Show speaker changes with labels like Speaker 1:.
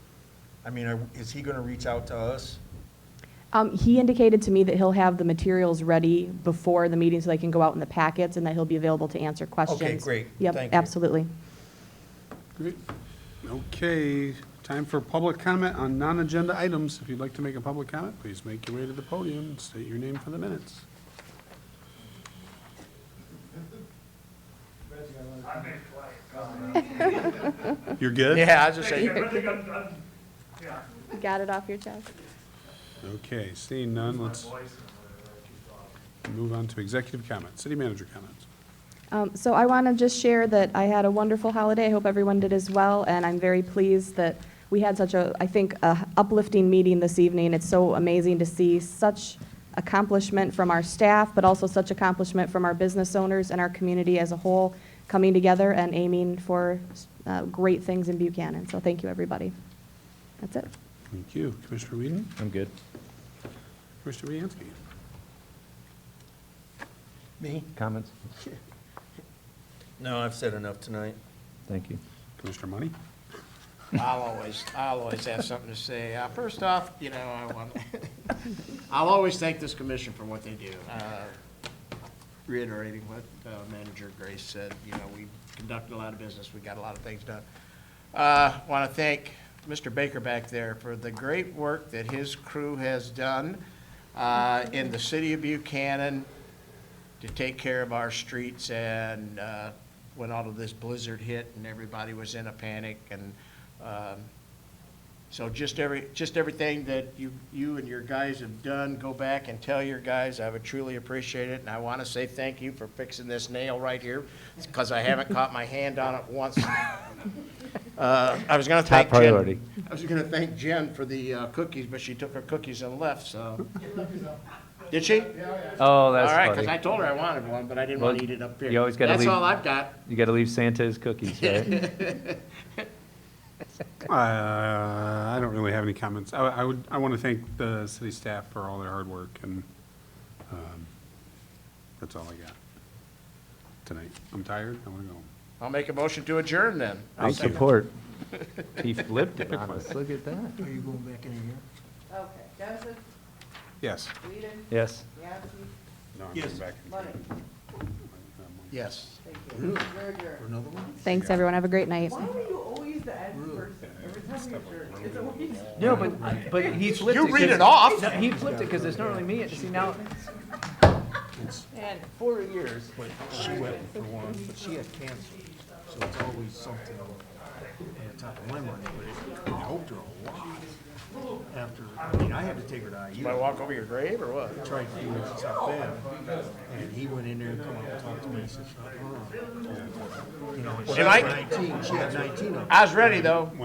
Speaker 1: I mean, are- is he going to reach out to us?
Speaker 2: Um, He indicated to me that he'll have the materials ready before the meeting so they can go out in the packets and that he'll be available to answer questions.
Speaker 1: great.
Speaker 2: Yep,
Speaker 1: Thank you.
Speaker 2: absolutely.
Speaker 3: Great. Okay, time for public comment on non-agenda items. If you'd like to make a public comment, please make your way to the podium and state your name for the minutes. You're good?
Speaker 1: Yeah, I was just
Speaker 4: I
Speaker 1: saying,
Speaker 4: really got done, yeah.
Speaker 2: Got it off your chest?
Speaker 3: Okay, seeing none, let's
Speaker 4: voice and whatever, I keep on.
Speaker 3: move on to executive comments, city manager comments.
Speaker 2: Um, So I want to just share that I had a wonderful holiday. I hope everyone did as well, and I'm very pleased that we had such a, I think, a uplifting meeting this evening. It's so amazing to see such accomplishment from our staff, but also such accomplishment from our business owners and our community as a whole coming together and aiming for uh, great things in Buchanan. So thank you, everybody. That's it.
Speaker 3: Thank you. Commissioner Whedon,
Speaker 5: I'm good.
Speaker 3: Commissioner Viancy.
Speaker 1: me?
Speaker 5: Comments?
Speaker 1: No, I've said enough tonight.
Speaker 5: Thank you.
Speaker 3: Commissioner Money.
Speaker 6: I'll always, I'll always have something to say. Uh, First off, you know, I want, I'll always thank this commission for what they do. Uh, Reiterating what uh, Manager Grace said, you know, we conducted a lot of business, we got a lot of things done. Want to thank Mr. Baker back there for the great work that his crew has done uh, in the city of Buchanan to take care of our streets and uh, when all of this blizzard hit and everybody was in a panic and um, so just every, just everything that you, you and your guys have done, go back and tell your guys, I would truly appreciate it. And I want to say thank you for fixing this nail right here because I haven't caught my hand on it once. Uh, I was going to
Speaker 5: Top
Speaker 6: thank Jen.
Speaker 5: priority.
Speaker 6: I was going to thank Jen for the uh, cookies, but she took her cookies and left, so. Did she?
Speaker 5: Oh,
Speaker 6: All
Speaker 5: that's
Speaker 6: right, because I
Speaker 5: funny.
Speaker 6: told her I wanted one, but I didn't
Speaker 5: Well,
Speaker 6: want to eat it up here.
Speaker 5: you always gotta
Speaker 6: That's
Speaker 5: leave-
Speaker 6: all I've got.
Speaker 5: You gotta leave Santa his cookies, right?
Speaker 3: Uh, I don't really have any comments. I, I would, I want to thank the city staff for all their hard work and, um, that's all I got tonight. I'm tired. I want to go home.
Speaker 6: I'll make a motion to adjourn then.
Speaker 5: I'll
Speaker 3: Thank you.
Speaker 5: support. He flipped it on us. Look at that.
Speaker 1: Are you going back in here?
Speaker 7: Okay, Johnson,
Speaker 3: Yes.
Speaker 7: Whedon,
Speaker 5: Yes.
Speaker 7: Yasi,
Speaker 3: No, I'm
Speaker 1: Yes.
Speaker 3: going back.
Speaker 7: Money,
Speaker 6: Yes.
Speaker 7: thank you. You're adjourned.
Speaker 1: Another one?
Speaker 2: Thanks, everyone. Have a great night.
Speaker 7: Why were you always the end person? Every time you adjourn, it's always.
Speaker 5: No, but, but he flipped
Speaker 6: You read it off.
Speaker 5: He flipped it because it's normally me. See, now,
Speaker 6: And four years.
Speaker 1: She went for one, but she had cancer, so it's always something on top of my mind, but it helped her a lot. After, I mean, I had to take her to
Speaker 6: Do I
Speaker 1: IU,
Speaker 6: walk over your grave or what?
Speaker 1: tried to do it stuff then, and he went in there and come up and talked to me, he says, uh-uh. You know, and she
Speaker 6: Am I-
Speaker 1: had nineteen, she had nineteen of them.
Speaker 6: I was ready though.